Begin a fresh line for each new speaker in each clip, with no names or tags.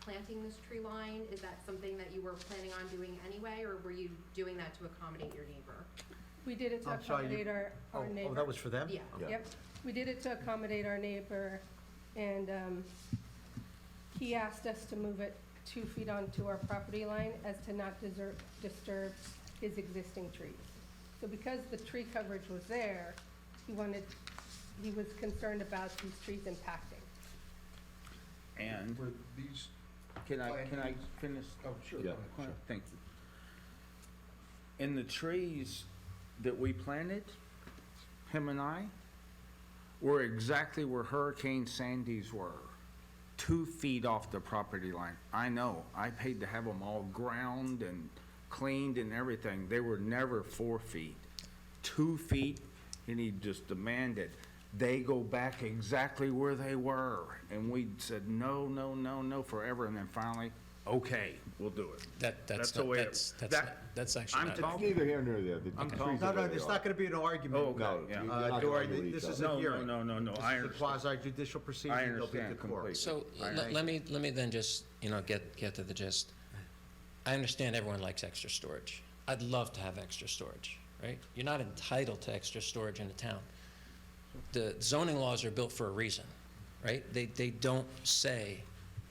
planting this tree line? Is that something that you were planning on doing anyway, or were you doing that to accommodate your neighbor?
We did it to
I'm sorry, you-
accommodate our,
Oh,
our neighbor.
oh, that was for them?
Yeah.
Yeah.
Yep, we did it to accommodate our neighbor, and um, he asked us to move it two feet onto our property line as to not desert- disturb his existing trees. So because the tree coverage was there, he wanted, he was concerned about these trees impacting.
And,
Were these,
can I, can I
Plantings.
finish?
oh, sure.
Yeah.
Quite- Thank you. And the trees that we planted, him and I, were exactly where Hurricane Sandy's were, two feet off the property line. I know, I paid to have them all ground and cleaned and everything. They were never four feet, two feet, and he just demanded they go back exactly where they were. And we said, no, no, no, no, forever. And then finally, okay, we'll do it.
That,
That's
that's,
the
not-
way it-
that's, that's,
that-
not- that's actually
I'm
not.
talking-
Neither here nor there. The-
I'm
the
talking-
trees are
No, no,
where they
it's
are.
not gonna be an
Oh,
argument.
okay.
No,
Yeah.
you're
Uh,
not gonna
Dory,
argue with
this
each
is
other.
a
No,
hearing.
no, no, no,
This
I
is a
understand.
quasi judicial proceeding. They'll be at the
understand
court.
completely.
So
I-
let,
I-
let me, let me then just, you know, get, get to the gist. I understand everyone likes extra storage. I'd love to have extra storage, right? You're not entitled to extra storage in a town. The zoning laws are built for a reason, right? They, they don't say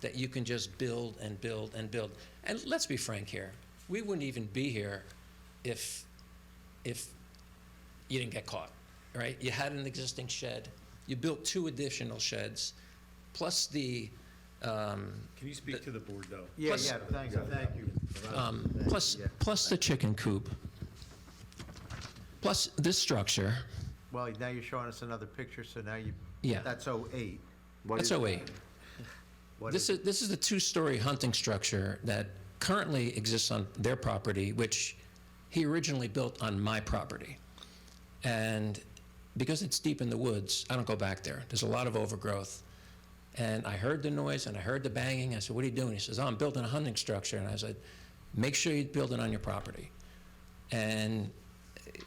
that you can just build and build and build. And let's be frank here, we wouldn't even be here if, if you didn't get caught, right? You had an existing shed, you built two additional sheds, plus the, um,
Can you speak to the board, though?
Yeah,
Plus-
yeah, thanks, thank you.
um, plus,
Yeah.
plus the chicken coop, plus this structure,
Well, now you're showing us another picture, so now you,
Yeah.
that's 08.
What
that's
is-
08.
What
This is, this is the two-story hunting structure that currently exists on their property, which he originally built on my property. And because it's deep in the woods, I don't go back there. There's a lot of overgrowth. And I heard the noise and I heard the banging. I said, what are you doing? He says, oh, I'm building a hunting structure. And I said, make sure you build it on your property. And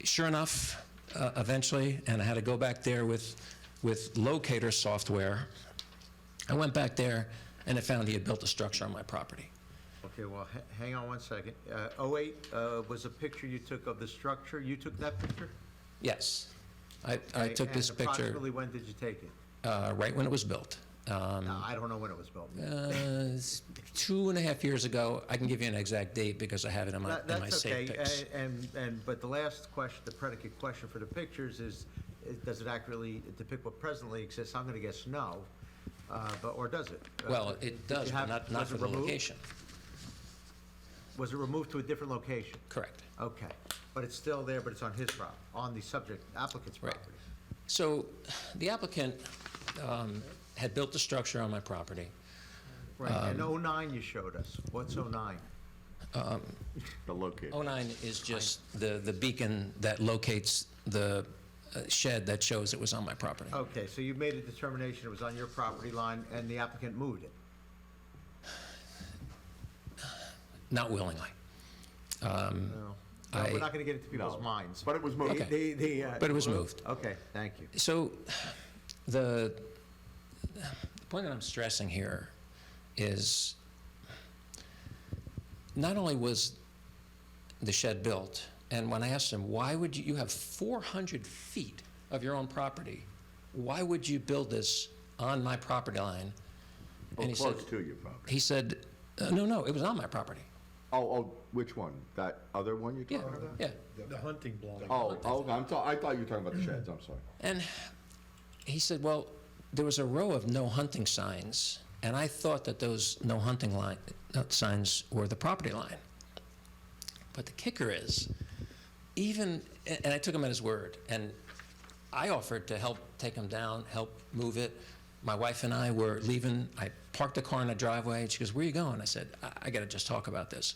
sure enough, uh, eventually, and I had to go back there with, with locator software. I went back there and I found he had built a structure on my property.
Okay, well, ha- hang on one second. Uh, 08 uh, was a picture you took of the structure, you took that picture?
Yes. I, I
Okay,
took this
and
picture
approximately when did you take it?
uh, right when it was built. Um,
I don't know when it was built.
uh, s- two and a half years ago, I can give you an exact date because I have it in my,
That-
in my
That's okay,
safe pics.
a- and, and, but the last question, the predicate question for the pictures is, is does it accurately depict what presently exists? I'm gonna guess no, uh, but, or does it? Uh,
Well,
did you
it does, but
have-
not, not
was
for
it
the
removed?
location.
Was it removed to a different location?
Correct.
Okay, but it's still there, but it's on his prop, on the subject applicant's
Right.
property.
So the applicant um, had built the structure on my property.
Right,
Um,
and 09 you showed us, what's 09?
The locate.
09 is just the, the beacon that locates the uh, shed that shows it was on my property.
Okay, so you made a determination it was on your property line and the applicant moved it?
Not willingly. Um,
No, No, we're
I-
not gonna get into people's minds.
But it was moved.
Okay.
They- they, uh,
But it was moved.
Okay, thank you.
So the, the point that I'm stressing here is not only was the shed built, and when I asked him, why would you, you have 400 feet of your own property, why would you build this on my property line?
Or
And he said,
close to your property.
he said, "Uh, no, no, it was on my property.
Oh, oh, which one? That other one you're
Yeah,
talking about?
yeah.
The hunting block.
Oh, oh, I'm so, I thought you were talking about the sheds, I'm sorry.
And he said, well, there was a row of no hunting signs, and I thought that those no hunting line, uh, signs were the property line. But the kicker is, even, a- and I took him at his word, and I offered to help take him down, help move it. My wife and I were leaving. I parked the car in the driveway. and She goes, Where are you going? I said, I, I got to just talk about this.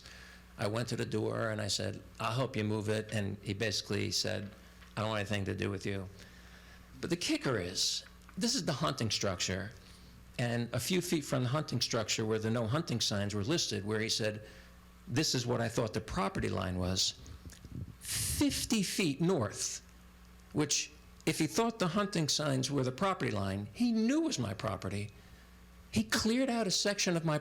I went to the door and I said, I'll help you move it. And he basically said, I don't want anything to do with you. But the kicker is, this is the hunting structure, and a few feet from the hunting structure where the no hunting signs were listed, where he said, this is what I thought the property line was, 50 feet north, which if he thought the hunting signs were the property line, he knew was my property. He cleared out a section of my